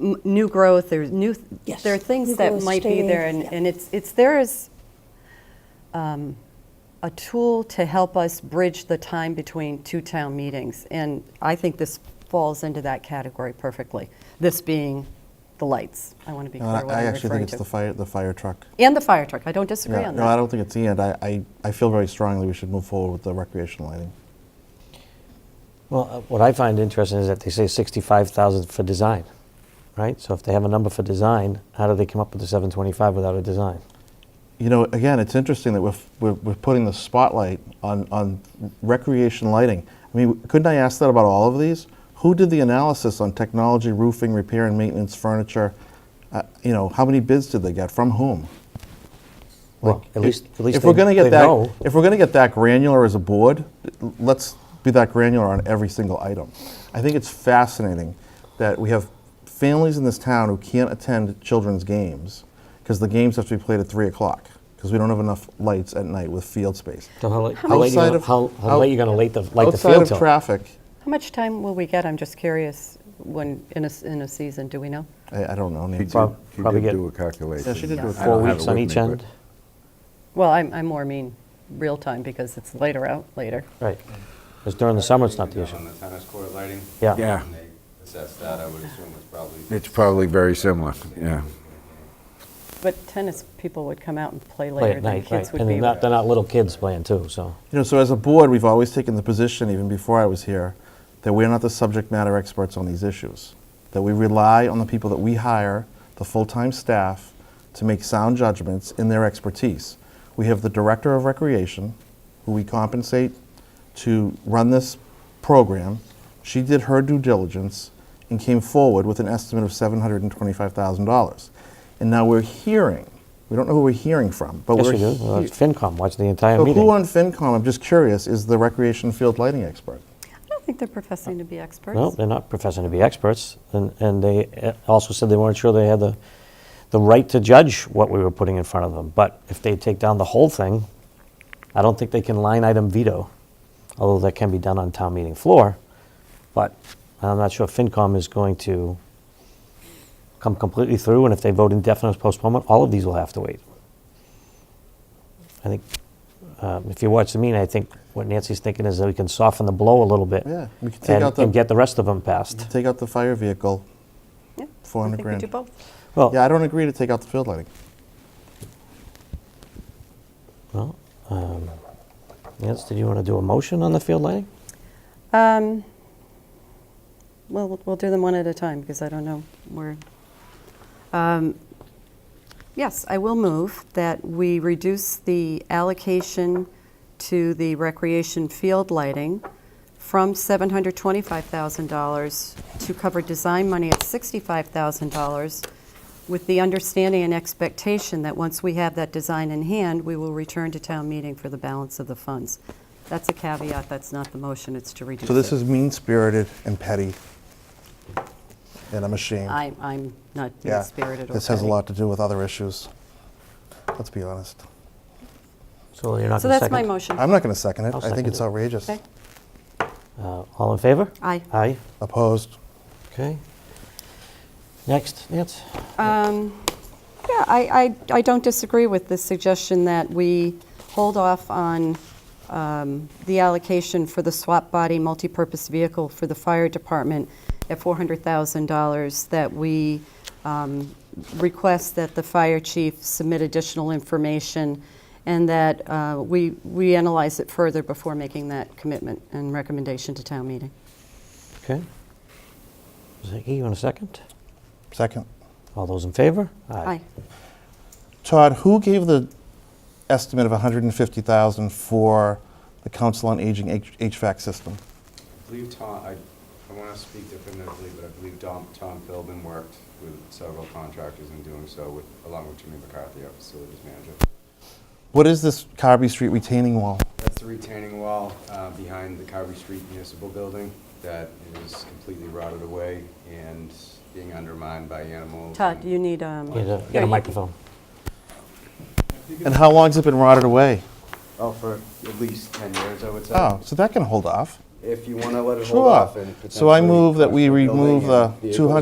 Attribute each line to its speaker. Speaker 1: m- new growth, there's new,
Speaker 2: Yes.
Speaker 1: there are things
Speaker 2: New
Speaker 1: that
Speaker 2: growth,
Speaker 1: might be there, and,
Speaker 2: staying, yeah.
Speaker 1: and it's, it's, there is um, a tool to help us bridge the time between two town meetings, and I think this falls into that category perfectly, this being the lights. I want to be
Speaker 3: No,
Speaker 1: clear what
Speaker 3: I, I
Speaker 1: I'm
Speaker 3: actually
Speaker 1: referring
Speaker 3: think it's the
Speaker 1: to.
Speaker 3: fire, the fire truck.
Speaker 1: And the fire truck, I don't disagree
Speaker 3: Yeah,
Speaker 1: on
Speaker 3: no, I
Speaker 1: that.
Speaker 3: don't think it's the end. I, I, I feel very strongly we should move forward with the recreational lighting.
Speaker 4: Well, uh, what I find interesting is that they say 65,000 for design, right? So if they have a number for design, how do they come up with the 725 without a design?
Speaker 3: You know, again, it's interesting that we're, f- we're, we're putting the spotlight on, on recreation lighting. I mean, couldn't I ask that about all of these? Who did the analysis on technology, roofing, repair and maintenance, furniture? Uh, you know, how many bids did they get? From whom?
Speaker 4: Well, at least, at least
Speaker 3: if we're
Speaker 4: they-
Speaker 3: going to
Speaker 4: they
Speaker 3: get that,
Speaker 4: know.
Speaker 3: if we're going to get that granular as a board, l- let's be that granular on every single item. I think it's fascinating that we have families in this town who can't attend children's games because the games have to be played at three o'clock because we don't have enough lights at night with field space.
Speaker 4: So how late, how late you
Speaker 3: Outside
Speaker 4: gonna,
Speaker 3: of-
Speaker 4: how, how
Speaker 3: out-
Speaker 4: late you gonna light the, light the
Speaker 3: Outside
Speaker 4: field
Speaker 3: of
Speaker 4: till?
Speaker 3: traffic,
Speaker 1: How much time will we get, I'm just curious, when, in a, s- in a season, do we know?
Speaker 3: I, I don't know.
Speaker 5: She
Speaker 3: Nancy.
Speaker 4: Prob-
Speaker 5: did, she
Speaker 4: probably
Speaker 5: did
Speaker 4: get-
Speaker 5: do a calculation.
Speaker 3: Yeah, she did do it four
Speaker 5: I
Speaker 4: Four
Speaker 5: don't have
Speaker 4: weeks
Speaker 5: it
Speaker 4: on
Speaker 5: with
Speaker 4: each
Speaker 5: me,
Speaker 4: end?
Speaker 1: Well, I'm, I more mean real time, because it's later out, later.
Speaker 4: Right. Because during the summer, it's not the issue.
Speaker 6: On the tennis court lighting?
Speaker 4: Yeah.
Speaker 5: but- Yeah,
Speaker 6: When they assess that, I would assume it's probably.
Speaker 5: it's probably very similar, yeah.
Speaker 1: But tennis people would come out and play
Speaker 4: Play
Speaker 1: later than
Speaker 4: at night, right.
Speaker 1: kids would
Speaker 4: And
Speaker 1: be.
Speaker 4: they're not, they're not little kids playing too, so.
Speaker 3: You know, so as a board, we've always taken the position, even before I was here, that we're not the subject matter experts on these issues. That we rely on the people that we hire, the full-time staff, to make sound judgments in their expertise. We have the director of recreation, who we compensate to run this program. She did her due diligence and came forward with an estimate of seven hundred and twenty-five thousand dollars. And now we're hearing, we don't know who we're hearing from, but
Speaker 4: Yes,
Speaker 3: we're
Speaker 4: we do. Well,
Speaker 3: hea-
Speaker 4: it's FinCom, watch the entire
Speaker 3: so who
Speaker 4: meeting.
Speaker 3: on FinCom, I'm just curious, is the recreation field lighting expert?
Speaker 1: I don't think they're professing to be experts.
Speaker 4: No, they're not professing to be experts, and, and they uh, also said they weren't sure they had the, the right to judge what we were putting in front of them. But if they take down the whole thing, I don't think they can line item veto, although that can be done on town meeting floor. But I'm not sure FinCom is going to come completely through, and if they vote indefinite postponement, all of these will have to wait. I think, uh, if you watch the meeting, I think what Nancy's thinking is that we can soften the blow a little bit.
Speaker 3: Yeah, we can take
Speaker 4: and-
Speaker 3: out the-
Speaker 4: And get the rest of them passed.
Speaker 3: Take out the fire vehicle,
Speaker 1: Yeah,
Speaker 3: four hundred
Speaker 1: I
Speaker 3: grand.
Speaker 1: think we do both.
Speaker 4: Well,
Speaker 3: Yeah, I don't agree to take out the field lighting.
Speaker 4: well, um, Nance, did you want to do a motion on the field lighting?
Speaker 1: Um, Well, we'll- we'll do them one at a time, because I don't know where. Um, Yes, I will move that we reduce the allocation to the recreation field lighting from $725,000 to cover design money at $65,000, with the understanding and expectation that once we have that design in hand, we will return to town meeting for the balance of the funds. That's a caveat, that's not the motion, it's to reduce it.
Speaker 3: So this is mean-spirited and petty, and I'm ashamed.
Speaker 1: I'm, I'm not
Speaker 3: Yeah,
Speaker 1: mean-spirited or
Speaker 3: This has a
Speaker 1: petty.
Speaker 3: lot to do with other issues. Let's be honest.
Speaker 4: So you're not
Speaker 1: So
Speaker 4: gonna
Speaker 1: that's my
Speaker 4: second?
Speaker 1: motion.
Speaker 3: I'm not going to second it.
Speaker 4: I'll
Speaker 3: I think
Speaker 4: second
Speaker 3: it's
Speaker 4: it.
Speaker 3: outrageous.
Speaker 1: Okay.
Speaker 4: Uh, All in favor?
Speaker 1: Aye.
Speaker 4: Aye,
Speaker 3: Opposed?
Speaker 4: okay. Next, Nance?
Speaker 1: Um, Yeah, I, I, I don't disagree with the suggestion that we hold off on um, the allocation for the swap body multipurpose vehicle for the fire department at $400,000, that we um, request that the fire chief submit additional information, and that uh, we, we analyze it further before making that commitment and recommendation to town meeting.
Speaker 4: Okay. Ziggy, you want a second?
Speaker 3: Second.
Speaker 4: All those in favor?
Speaker 1: Aye.
Speaker 3: Todd, who gave the estimate of 150,000 for the Council on Aging H- HVAC system?
Speaker 6: I believe Tom, I, I want to speak definitively, but I believe Tom, Tom Philbin worked with several contractors in doing so with, along with Jimmy McCarthy, our facilities manager.
Speaker 3: What is this Carby Street retaining wall?
Speaker 6: That's the retaining wall uh, behind the Carvey Street Municipal Building that is completely rotted away and being undermined by animals.
Speaker 1: Todd,
Speaker 6: and-
Speaker 1: you need, um,
Speaker 4: Get a-
Speaker 1: here,
Speaker 4: Get a
Speaker 1: you-
Speaker 4: microphone.
Speaker 3: And how long's it been rotted away?
Speaker 6: Oh, for at least 10 years, I would say.
Speaker 3: Oh, so that can hold off.
Speaker 6: If you want to let it hold
Speaker 3: Sure.
Speaker 6: off and
Speaker 3: So I
Speaker 6: potentially
Speaker 3: move that
Speaker 6: push
Speaker 3: we
Speaker 6: the building
Speaker 3: remove
Speaker 6: and
Speaker 3: the
Speaker 6: vehicles
Speaker 3: 200